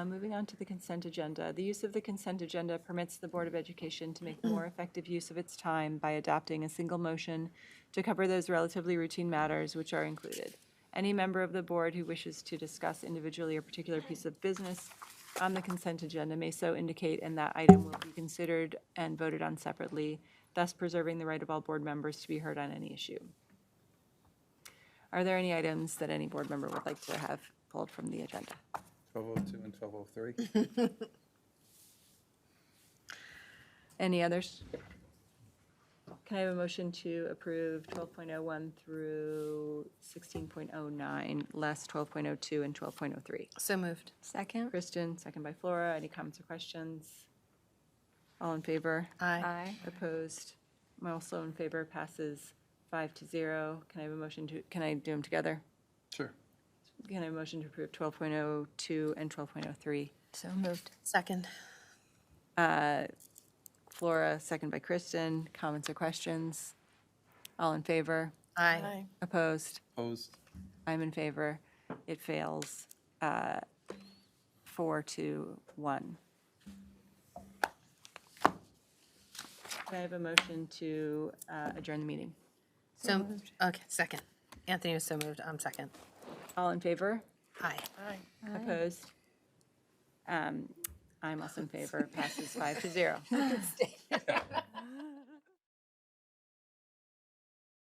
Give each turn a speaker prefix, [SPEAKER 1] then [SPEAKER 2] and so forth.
[SPEAKER 1] Uh, Moving on to the consent agenda. The use of the consent agenda permits the Board of Education to make more effective use of its time by adopting a single motion to cover those relatively routine matters which are included. Any member of the board who wishes to discuss individually a particular piece of business on the consent agenda may so indicate, and that item will be considered and voted on separately, thus preserving the right of all board members to be heard on any issue. Are there any items that any board member would like to have pulled from the agenda?
[SPEAKER 2] 1202 and 1203?
[SPEAKER 1] Any others? Can I have a motion to approve 12.01 through 16.09, less 12.02 and 12.03?
[SPEAKER 3] So moved.
[SPEAKER 4] Second?
[SPEAKER 1] Kristen, second by Flora. Any comments or questions? All in favor?
[SPEAKER 3] Aye.
[SPEAKER 4] Aye.
[SPEAKER 1] Opposed? I'm also in favor. Passes five to zero. Can I have a motion to, can I do them together?
[SPEAKER 2] Sure.
[SPEAKER 1] Can I have a motion to approve 12.02 and 12.03?
[SPEAKER 4] So moved.
[SPEAKER 3] Second.
[SPEAKER 1] Flora, second by Kristen. Comments or questions? All in favor?
[SPEAKER 3] Aye.
[SPEAKER 1] Opposed?
[SPEAKER 2] Opposed?
[SPEAKER 1] I'm in favor. It fails uh, four to one. Can I have a motion to uh, adjourn the meeting?
[SPEAKER 3] So, okay, second. Anthony was so moved. I'm second.
[SPEAKER 1] All in favor?
[SPEAKER 3] Aye.
[SPEAKER 1] Opposed? Um, I'm also in favor. Passes five to zero.